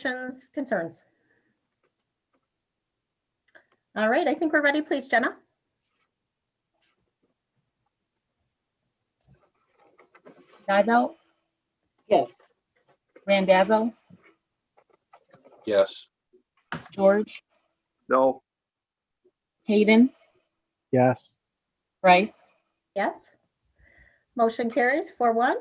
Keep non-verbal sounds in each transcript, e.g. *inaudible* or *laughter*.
questions, concerns? All right, I think we're ready. Please, Jenna? Geisel, Yes. Randazzo, Yes. George, No. Hayden, Yes. Bryce, Yes. Motion carries four one.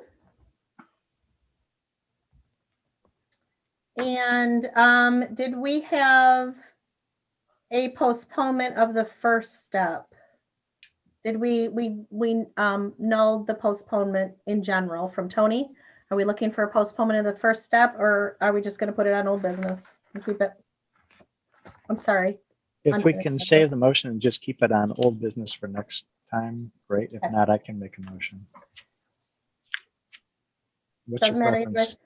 And um, did we have a postponement of the first step? Did we, we, we um nulled the postponement in general from Tony? Are we looking for a postponement of the first step or are we just going to put it on old business and keep it? I'm sorry. If we Under- can save the motion and just keep it on old business for next time, great. If Okay. not, I can make a motion. What's your Doesn't matter either. preference?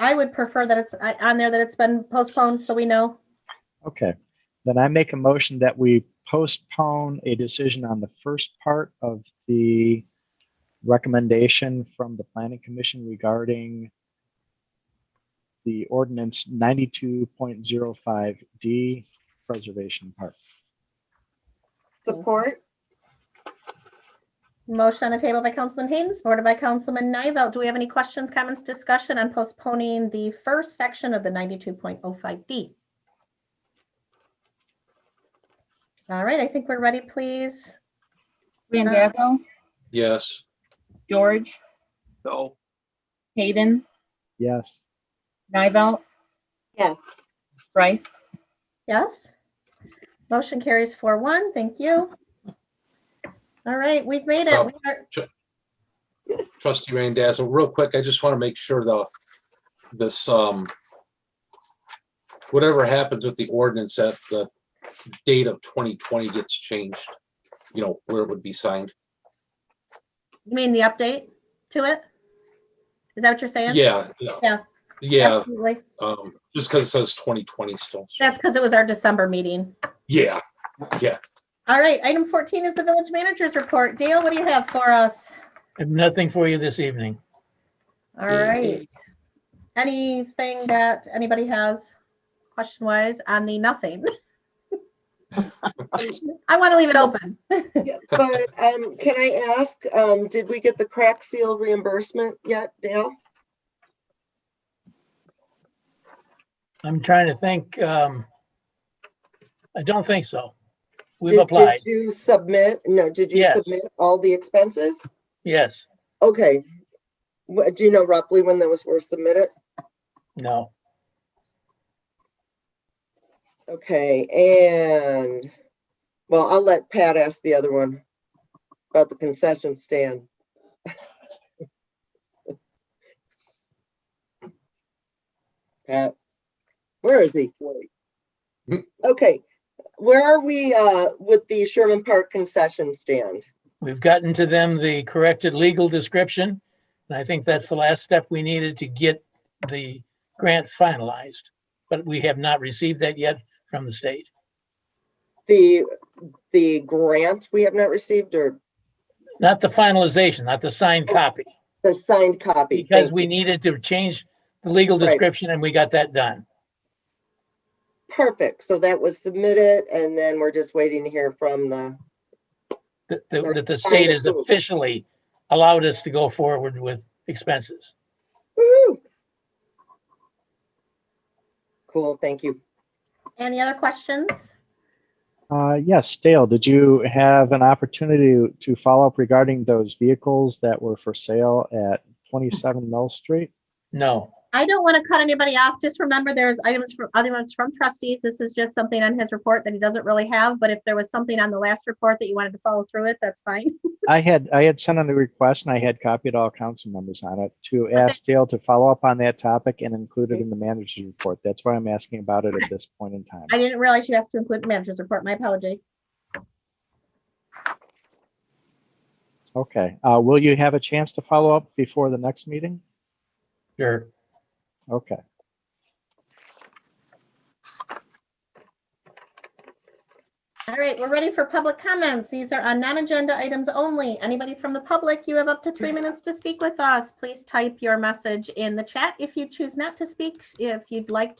I would prefer that it's I- on there that it's been postponed so we know. Okay, then I make a motion that we postpone a decision on the first part of the recommendation from the planning commission regarding the ordinance ninety-two point zero five D preservation part. Support? Motion on the table by Councilman Hayden, supported by Councilman Nivell. Do we have any questions, comments, discussion on postponing the first section of the ninety-two point oh five D? All right, I think we're ready, please. Randazzo, Yes. George, No. Hayden, Yes, Nivell, Yes. Bryce, Yes? Motion carries four one. Thank you. All right, we've made it. We are- Trustee Randazzo, real quick, I just want to make sure the, this, um, whatever happens with the ordinance, that the date of 2020 gets changed, you know, where it would be signed. You mean the update to it? Is that what you're saying? Yeah. Yeah. Yeah, Absolutely. um, just because it says 2020 still. That's because it was our December meeting. Yeah, All right, item fourteen is the village manager's report. Dale, what do you have for us? I have nothing for you this evening. All right. Anything that anybody has question wise on the nothing? I want to leave it open. Yeah, But um, can I ask, um, did we get the crack seal reimbursement yet, Dale? I'm trying to think, um, I don't think so. Did- We've did applied, You submit, no, did you Yes. submit all the expenses? yes, Okay. Wha- Do you know roughly when those were submitted? no, Okay, and, well, I'll let Pat ask the other one about the concession stand. *laughs* Pat, where is he? Wait. Hmm. Okay, where are we uh, with the Sherman Park concession stand? we've gotten to them the corrected legal description. And I think that's the last step we needed to get the grant finalized. But we have not received that yet from the state. The, the grant we have not received or Not the finalization, not the Oh, signed copy, the signed copy? because Thank- we needed to change the legal Right. description and we got that done. Perfect, so that was submitted and then we're just waiting to hear from the that, that Or that the find state has approval. officially allowed us to go forward with expenses. Woo! Cool, thank you. Any other questions? uh, yes, Dale, did you have an opportunity to follow up regarding those vehicles that were for sale at twenty-seven Mill Street? No, I don't want to cut anybody off. Just remember, there's items from other ones from trustees. This is just something on his report that he doesn't really have, but if there was something on the last report that you wanted to follow through with, that's fine. I had, I had sent in a request and I had copied all council members on it to ask Dale to follow up on that topic and include it in the manager's report. That's why I'm asking about it at this point in time. I didn't realize you asked to include the manager's report. My apology. Okay, uh, will you have a chance to follow up before the next meeting? sure. Okay, All right, we're ready for public comments. These are on non-agenda items only. Anybody from the public, you have up to three minutes to speak with us. Please type your message in the chat if you choose not to speak. If you'd like